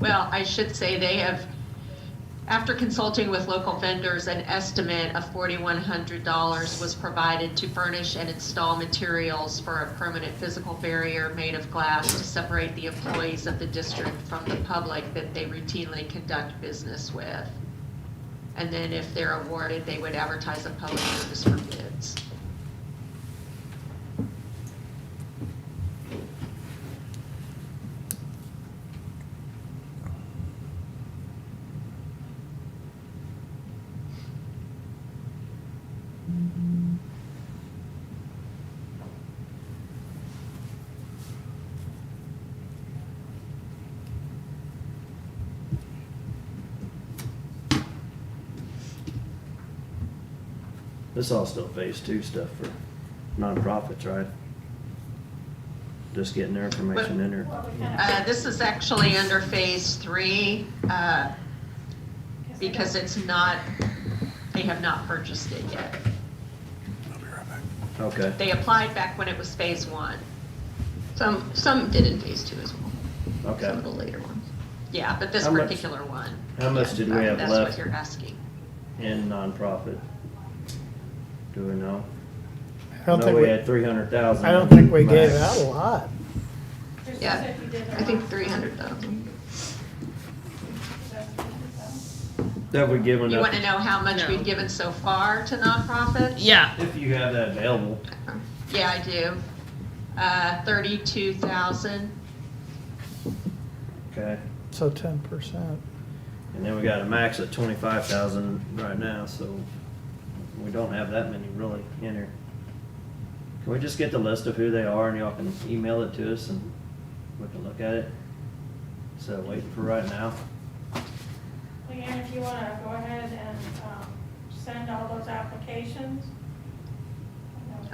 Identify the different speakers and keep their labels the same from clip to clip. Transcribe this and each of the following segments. Speaker 1: Well, I should say they have, after consulting with local vendors, an estimate of forty-one hundred dollars was provided to furnish and install materials for a permanent physical barrier made of glass to separate the employees of the district from the public that they routinely conduct business with. And then if they're awarded, they would advertise a public notice for bids.
Speaker 2: This all still phase two stuff for nonprofits, right? Just getting their information in there.
Speaker 1: Uh, this is actually under phase three, uh, because it's not, they have not purchased it yet.
Speaker 3: I'll be right back.
Speaker 2: Okay.
Speaker 1: They applied back when it was phase one.
Speaker 4: Some, some did in phase two as well.
Speaker 2: Okay.
Speaker 4: Some of the later ones.
Speaker 1: Yeah, but this
Speaker 2: How much-
Speaker 1: particular one.
Speaker 2: how much
Speaker 1: yeah,
Speaker 2: did we have
Speaker 1: That's what
Speaker 2: left?
Speaker 1: you're asking.
Speaker 2: And nonprofit. Do we know?
Speaker 5: I don't
Speaker 2: know
Speaker 5: think
Speaker 2: we,
Speaker 5: we,
Speaker 2: had three hundred thousand.
Speaker 5: I don't think we gave out a lot.
Speaker 4: Yeah, I think three hundred thousand.
Speaker 2: That we given
Speaker 1: You
Speaker 2: up.
Speaker 1: want to know how much
Speaker 6: No.
Speaker 1: we've given so far to nonprofits?
Speaker 6: Yeah.
Speaker 2: If you have that available,
Speaker 1: Yeah, I do. Uh, thirty-two thousand.
Speaker 2: okay.
Speaker 5: So ten percent.
Speaker 2: And then we got a max of twenty-five thousand right now, so we don't have that many really in here. Can we just get the list of who they are and y'all can email it to us and we can look at it? So waiting for right now.
Speaker 7: Leanne, if you want to go ahead and um, send all those applications.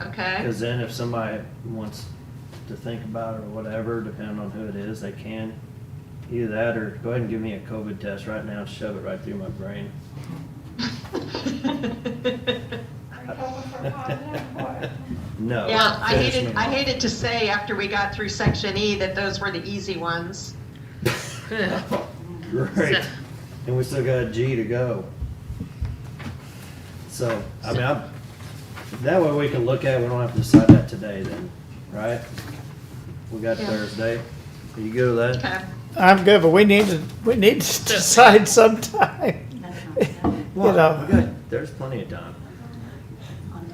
Speaker 1: Okay,
Speaker 2: Cause then if somebody wants to think about it or whatever, depending on who it is, they can. Either that or go ahead and give me a COVID test right now and shove it right through my brain.
Speaker 7: Are you hoping for positive or?
Speaker 2: No.
Speaker 1: yeah, I
Speaker 2: finish
Speaker 1: hated,
Speaker 2: me
Speaker 1: I
Speaker 2: off.
Speaker 1: hated to say after we got through section E that those were the easy ones.
Speaker 2: Great.
Speaker 6: So-
Speaker 2: And we still got G to go. So, I mean, I'm, that way we can look at, it, we don't have to decide that today then, right? We got
Speaker 1: Yeah.
Speaker 2: Thursday. Are you good with that?
Speaker 1: Okay.
Speaker 5: I'm good, but we need to, we need to decide sometime. You
Speaker 2: Well,
Speaker 5: know,
Speaker 2: we got- There's plenty of time.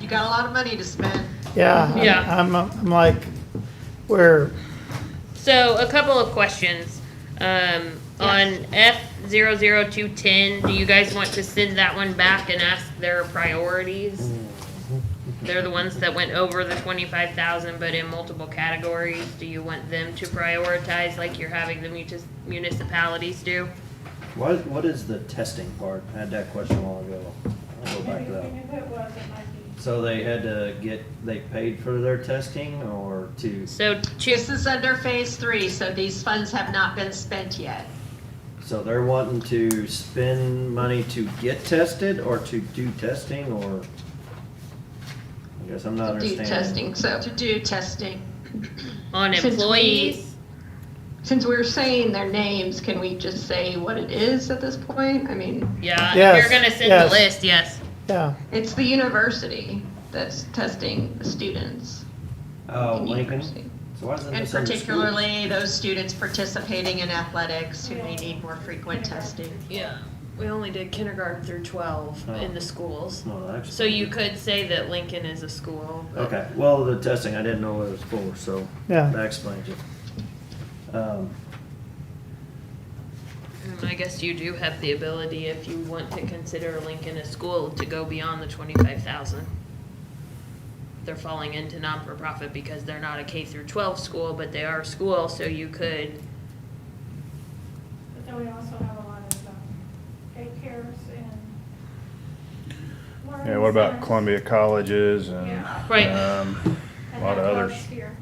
Speaker 1: You got a lot of money to spend.
Speaker 5: yeah. I'm-
Speaker 6: Yeah.
Speaker 5: I'm, I'm like, we're,
Speaker 6: So a couple of questions. Um, on F 210 do you guys want to send that one back and ask their priorities? They're the ones that went over the twenty-five thousand, but in multiple categories. Do you want them to prioritize like you're having the mutis- municipalities do?
Speaker 2: What, what is the testing part? I had that question a while ago. I'll go back
Speaker 7: Maybe
Speaker 2: to that.
Speaker 7: we knew who it was, it might be.
Speaker 2: So they had to get, they paid for their testing or to,
Speaker 6: So two,
Speaker 1: This is under phase three, so these funds have not been spent yet.
Speaker 2: so they're wanting to spend money to get tested or to do testing or? I guess I'm not
Speaker 4: Do
Speaker 2: understanding.
Speaker 4: testing, so.
Speaker 1: To do testing.
Speaker 6: on
Speaker 4: Since we-
Speaker 6: employees,
Speaker 4: Since we're saying their names, can we just say what it is at this point? I mean,
Speaker 6: yeah, if
Speaker 5: Yes,
Speaker 6: you're gonna send
Speaker 5: yes.
Speaker 6: the list, yes.
Speaker 5: yeah,
Speaker 4: it's the university that's testing the students.
Speaker 2: Oh,
Speaker 4: in
Speaker 2: Lincoln?
Speaker 4: university.
Speaker 2: So why isn't
Speaker 1: And
Speaker 2: this under school?
Speaker 1: particularly those students participating in athletics who may need more frequent testing.
Speaker 8: Yeah, we only did kindergarten through 12 in the schools.
Speaker 2: No, that's-
Speaker 6: So you could say that Lincoln is a school. but-
Speaker 2: Okay, well, the testing, I didn't know what it was for, so
Speaker 5: Yeah.
Speaker 2: that explains it. Um,
Speaker 6: Mm, I guess you do have the ability, if you want to consider Lincoln a school, to go beyond the twenty-five thousand. They're falling into non-for-profit because they're not a K through twelve school, but they are a school, so you could,
Speaker 7: But then we also have a lot of um, daycares and.
Speaker 3: Yeah, what about
Speaker 7: learning centers.
Speaker 3: Columbia colleges and,
Speaker 7: Yeah.
Speaker 6: right,
Speaker 3: um,
Speaker 7: And
Speaker 3: lot of
Speaker 7: that's
Speaker 3: others.
Speaker 7: us here.